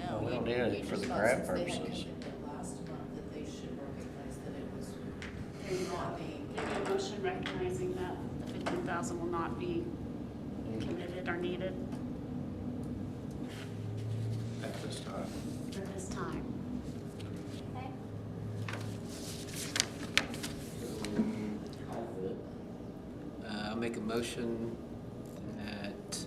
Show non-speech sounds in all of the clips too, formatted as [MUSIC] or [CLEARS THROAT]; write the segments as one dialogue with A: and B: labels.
A: don't do anything for the grant purposes.
B: Last month that they should recognize that it was,
C: There you go.
B: not being.
C: Make a motion recognizing that the fifteen thousand will not be committed or needed
A: At this time.
C: at this time. Okay.
D: Uh, I'll make a motion that,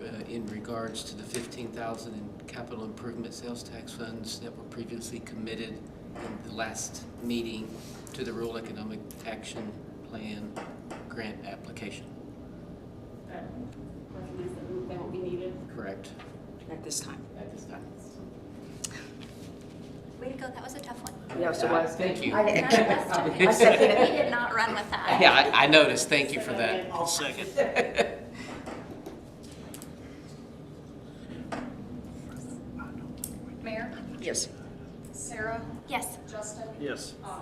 D: uh, in regards to the fifteen thousand in capital improvement sales tax funds that were previously committed in the last meeting to the rural economic action plan grant application,
C: But recognize that they won't be needed.
D: correct?
E: at this time.
D: At this time.
F: Way to go, that was a tough one.
E: Yes, it was.
D: Thank you.
E: I
F: None of us took
E: I second
F: it.
E: it.
F: We did not run with that.
D: Yeah, I, I noticed, thank you for that.
C: I'll second.
G: Mayor,
E: Yes.
G: Sarah,
F: Yes,
G: Justin,
H: Yes.
G: uh,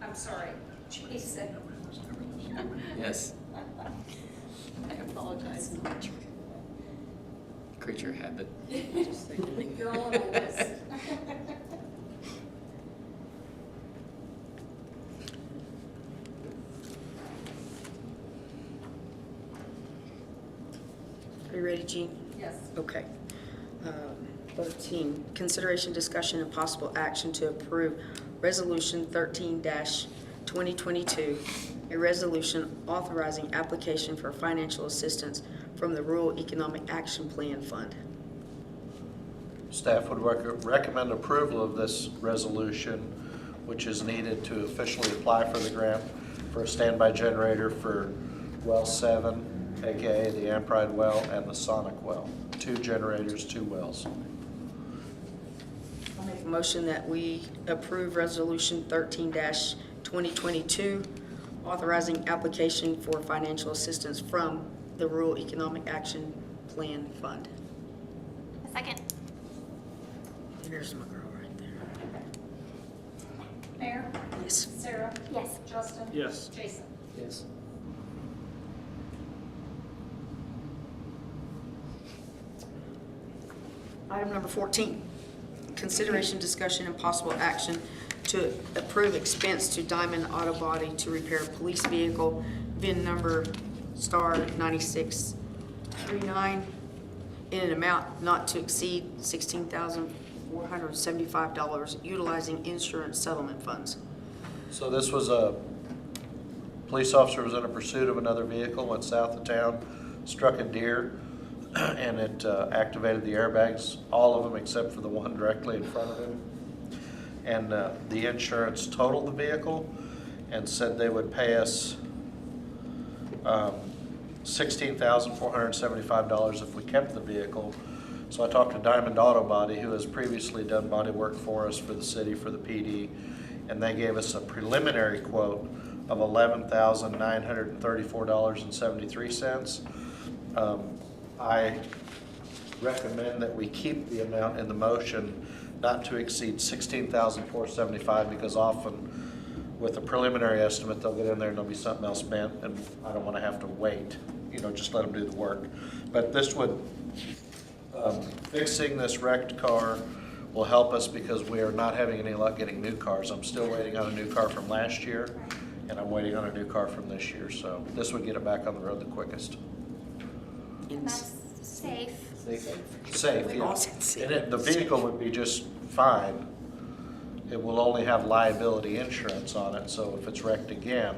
G: I'm sorry, Jason.
D: [LAUGHS] Yes,
G: I apologize.
D: creature habit.
G: You're all on the list.
E: Are you ready, Jean?
G: Yes.
E: Okay. Um, 13, consideration, discussion, and possible action to approve Resolution 13-2022, a resolution authorizing application for financial assistance from the Rural Economic Action Plan Fund.
H: Staff would rec- recommend approval of this resolution, which is needed to officially apply for the grant for a standby generator for well seven, AKA the Ampride well and the Sonic well. Two generators, two wells.
E: I'll make a motion that we approve Resolution 13-2022, authorizing application for financial assistance from the Rural Economic Action Plan Fund.
F: a second.
E: There's my girl right there.
G: Mayor,
E: Yes.
G: Sarah,
F: Yes,
G: Justin.
H: Yes.
G: Jason.
D: Yes.
E: Item number 14, consideration, discussion, and possible action to approve expense to Diamond Auto Body to repair police vehicle VIN number star 9639 in an amount not to exceed $16,475 utilizing insurance settlement funds.
H: So this was a, police officer was in a pursuit of another vehicle, went south of town, struck a deer, [CLEARS THROAT] and it uh, activated the airbags, all of them except for the one directly in front of him. And uh, the insurance totaled the vehicle and said they would pay us um, $16,475 if we kept the vehicle. So I talked to Diamond Auto Body, who has previously done body work for us for the city, for the PD, and they gave us a preliminary quote of $11,934.73. Um, I recommend that we keep the amount in the motion not to exceed $16,475 because often with a preliminary estimate, they'll get in there and there'll be something else spent, and I don't wanna have to wait, you know, just let them do the work. But this would, um, fixing this wrecked car will help us because we are not having any luck getting new cars. I'm still waiting on a new car from last year, and I'm waiting on a new car from this year, so this would get it back on the road the quickest.
F: and that's safe.
H: Safe,
E: We
H: yeah.
E: lost it, safe.
H: And it, the vehicle would be just fine. It will only have liability insurance on it, so if it's wrecked again,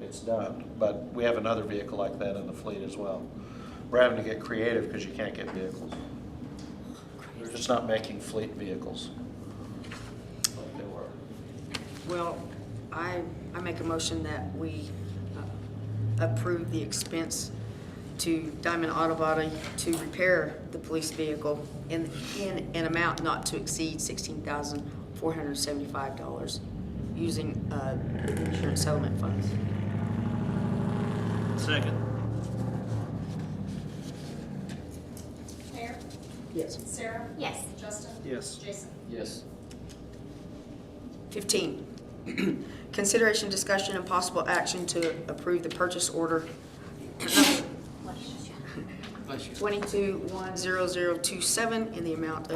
H: it's done. But we have another vehicle like that in the fleet as well. We're having to get creative because you can't get vehicles. They're just not making fleet vehicles. like they were.
E: Well, I, I make a motion that we uh, approve the expense to Diamond Auto Body to repair the police vehicle in, in an amount not to exceed sixteen thousand four hundred seventy-five dollars using, uh, insurance settlement funds.
G: Mayor,
E: Yes.
G: Sarah,
F: Yes,
G: Justin.
H: Yes.
G: Jason.
D: Yes.
E: 15, [CLEARS THROAT] consideration, discussion, and possible action to approve the purchase order
D: Bless you.
E: 22-10027 in the amount of.